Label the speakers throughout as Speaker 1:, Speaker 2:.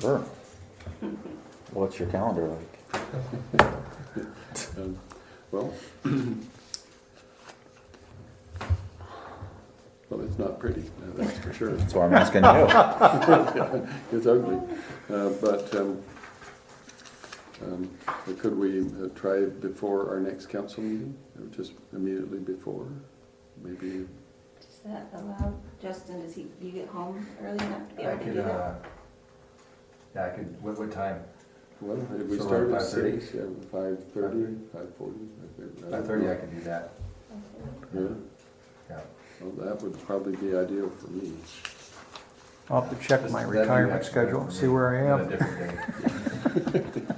Speaker 1: Sure. What's your calendar like?
Speaker 2: Um, Well, well, it's not pretty, uh, that's for sure.
Speaker 1: That's why I'm asking you.
Speaker 2: It's ugly. Uh, But um, um, could we uh, try before our next council meeting? Or Just immediately before, maybe?
Speaker 3: Does that allow, Justin, does he, you get home early enough to be
Speaker 4: I
Speaker 3: able to do
Speaker 4: could,
Speaker 3: that?
Speaker 4: uh, yeah, I could, what, what time?
Speaker 2: Well, if we
Speaker 4: So
Speaker 2: start
Speaker 4: around
Speaker 2: at
Speaker 4: 5:30?
Speaker 2: six, five thirty, five forty?
Speaker 4: Five thirty, I could do that,
Speaker 2: Yeah,
Speaker 4: yeah.
Speaker 2: well, that would probably be ideal for me.
Speaker 5: I'll have to check
Speaker 4: This-
Speaker 5: my
Speaker 4: that'd be
Speaker 5: retirement
Speaker 4: actually better
Speaker 5: schedule, and
Speaker 4: for
Speaker 5: see
Speaker 4: me
Speaker 5: where I
Speaker 4: on a
Speaker 5: am.
Speaker 4: different day.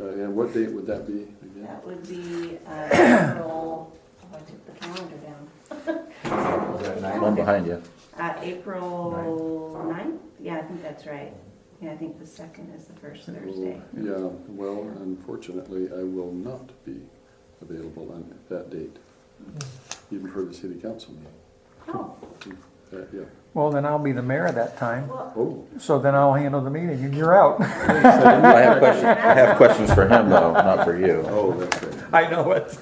Speaker 2: Uh, And what date would that be again?
Speaker 3: That would be, uh, April, oh, I took the calendar down.
Speaker 4: Is that nine?
Speaker 1: One behind you.
Speaker 3: Uh, April ninth, yeah, I think that's right. Yeah, I think the second is the first Thursday.
Speaker 2: Well, Yeah, well, unfortunately, I will not be available on that date, even for the city council meeting.
Speaker 3: Oh,
Speaker 2: Uh, Yeah,
Speaker 5: Well, then I'll be the mayor that time,
Speaker 3: well,
Speaker 2: oh,
Speaker 5: so then I'll handle the meeting, and you're out.
Speaker 1: I have questions, I have questions for him though, not for you.
Speaker 2: oh, that's right.
Speaker 5: I know it.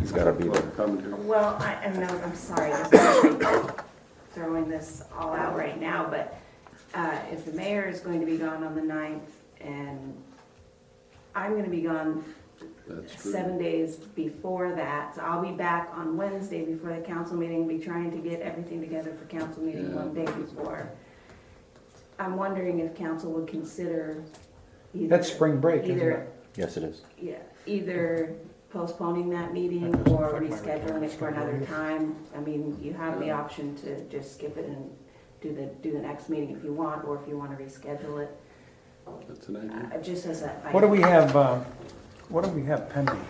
Speaker 1: He's gotta be
Speaker 2: Well,
Speaker 1: there.
Speaker 2: commentary.
Speaker 3: well, I, I know, I'm sorry, this is like throwing this all out right now, but, uh, if the mayor is going to be gone on the ninth and I'm gonna be gone
Speaker 2: that's true.
Speaker 3: seven days before that, so I'll be back on Wednesday before the council meeting, be trying to get everything together for council meeting
Speaker 2: Yeah.
Speaker 3: one day before. I'm wondering if council would consider either.
Speaker 5: That's spring break, isn't
Speaker 3: either-
Speaker 5: it?
Speaker 1: Yes, it is.
Speaker 3: Yeah, either postponing that meeting
Speaker 5: That doesn't
Speaker 3: or
Speaker 5: affect my
Speaker 3: rescheduling it for
Speaker 5: retirement
Speaker 3: another
Speaker 5: schedule.
Speaker 3: time. I mean, you have the
Speaker 2: Yeah.
Speaker 3: option to just skip it and do the, do the next meeting if you want, or if you wanna reschedule it,
Speaker 2: That's an idea.
Speaker 3: uh, just as a.
Speaker 5: What do we have, uh, what do we have pending?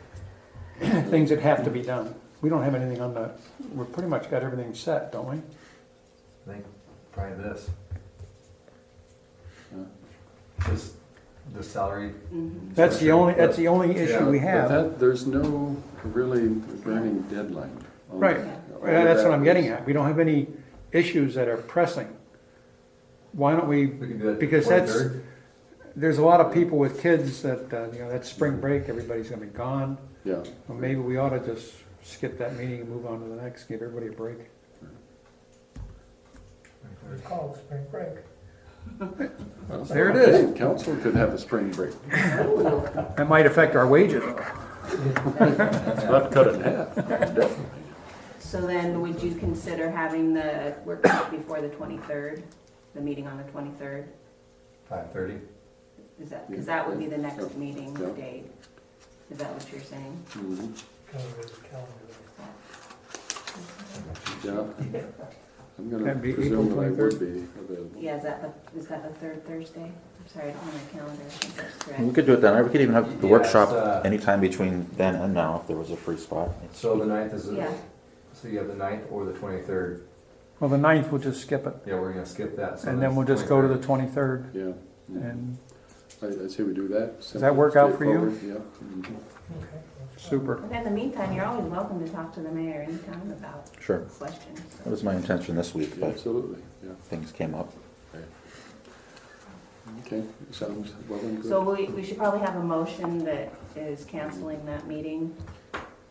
Speaker 5: Things that have to be done. We don't have anything on the, we're pretty much got everything set, don't we?
Speaker 4: I think probably this,
Speaker 2: yeah.
Speaker 4: this, the salary,
Speaker 3: Mhm.
Speaker 5: That's the only, that's the only
Speaker 4: Yeah,
Speaker 5: issue we
Speaker 4: but
Speaker 2: But
Speaker 5: have.
Speaker 2: that, there's no really burning deadline. on
Speaker 5: Right.
Speaker 2: that.
Speaker 5: Yeah, That's what I'm getting at. We don't have any issues that are pressing. Why don't we,
Speaker 4: we can do that.
Speaker 5: Because that's-
Speaker 4: 23rd.
Speaker 5: there's a lot of people with kids that, uh, you know, that's spring break, everybody's gonna be gone.
Speaker 2: Yeah,
Speaker 5: Well, maybe we ought to just skip that meeting and move on to the next, give everybody a break.
Speaker 6: It's called spring break.
Speaker 5: There it is.
Speaker 2: Hey, Council could have a spring break.
Speaker 3: Oh.
Speaker 5: That might affect our wages.
Speaker 2: Not cut in half, definitely.
Speaker 3: So then, would you consider having the workshop before the 23rd, the meeting on the 23rd?
Speaker 4: Five thirty,
Speaker 3: Is that, because that would be the next meeting
Speaker 2: Yeah.
Speaker 3: date? Is that what you're saying?
Speaker 2: Mhm.
Speaker 6: Calendar, calendar.
Speaker 2: Yeah. I'm gonna
Speaker 5: That'd be April
Speaker 2: presume that I would
Speaker 5: 23rd.
Speaker 2: be available.
Speaker 3: Yeah, is that the, is that the third Thursday? I'm sorry, I don't have my calendar, I think that's
Speaker 1: We
Speaker 3: correct.
Speaker 1: could do it then. We could even have the
Speaker 4: Yeah, it's, uh,
Speaker 1: workshop anytime between then and now if there was a free spot.
Speaker 4: so the ninth is,
Speaker 3: Yeah.
Speaker 4: the- so you have the ninth or the twenty-third,
Speaker 5: Well, the ninth, we'll just skip it,
Speaker 4: yeah, we're gonna skip that. so
Speaker 5: and
Speaker 4: that's
Speaker 5: then we'll just go to the
Speaker 4: 23rd.
Speaker 5: twenty-third,
Speaker 2: Yeah. Mhm.
Speaker 5: and
Speaker 2: I, I say we do that. Does
Speaker 5: that work out for you?
Speaker 2: Yeah. Mhm.
Speaker 6: Okay.
Speaker 5: super.
Speaker 3: And in the meantime, you're always welcome to talk to the mayor anytime about
Speaker 1: Sure.
Speaker 3: questions.
Speaker 1: That was my intention this week,
Speaker 2: Yeah,
Speaker 1: but
Speaker 2: Absolutely, yeah.
Speaker 1: things came up.
Speaker 2: Okay, sounds well and
Speaker 3: So
Speaker 2: good,
Speaker 3: we, we should probably have a motion that is canceling that meeting.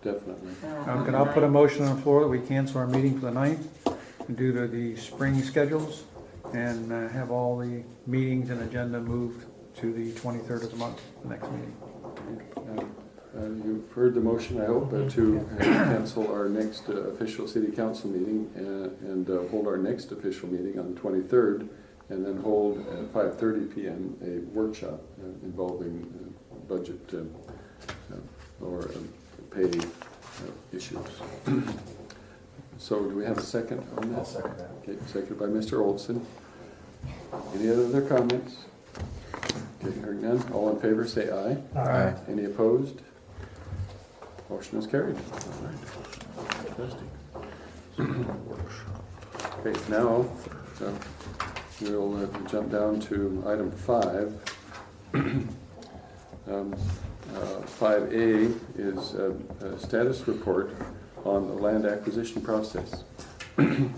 Speaker 2: definitely.
Speaker 3: uh, on
Speaker 5: Okay,
Speaker 3: the
Speaker 5: I'll Um, put a
Speaker 3: 9th.
Speaker 5: motion on the floor that we cancel our meeting for the ninth due to the spring schedules, and uh, have all the meetings and agenda moved to the twenty-third of the month, the next meeting.
Speaker 2: Uh, uh, You've heard the motion, I hope, uh, to uh, cancel our next uh, official city council meeting uh, and uh, hold our next official meeting on the 23rd, and then hold at 5:30 PM a workshop uh, involving uh, budget um, uh, or um, pay uh, issues. So do we have a second on
Speaker 4: I'll
Speaker 2: that?
Speaker 4: second that.
Speaker 2: Okay, seconded by Mr. Olson. Any other comments? Okay, hearing none, all in favor, say aye.
Speaker 1: Aye.
Speaker 2: Any opposed? Motion is carried. All right. Fantastic. Okay, now, uh, we'll uh, jump down to item five. Um, uh, Five A is uh, a status report on the land acquisition process. I'm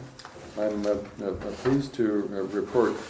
Speaker 2: uh, uh, pleased to uh, report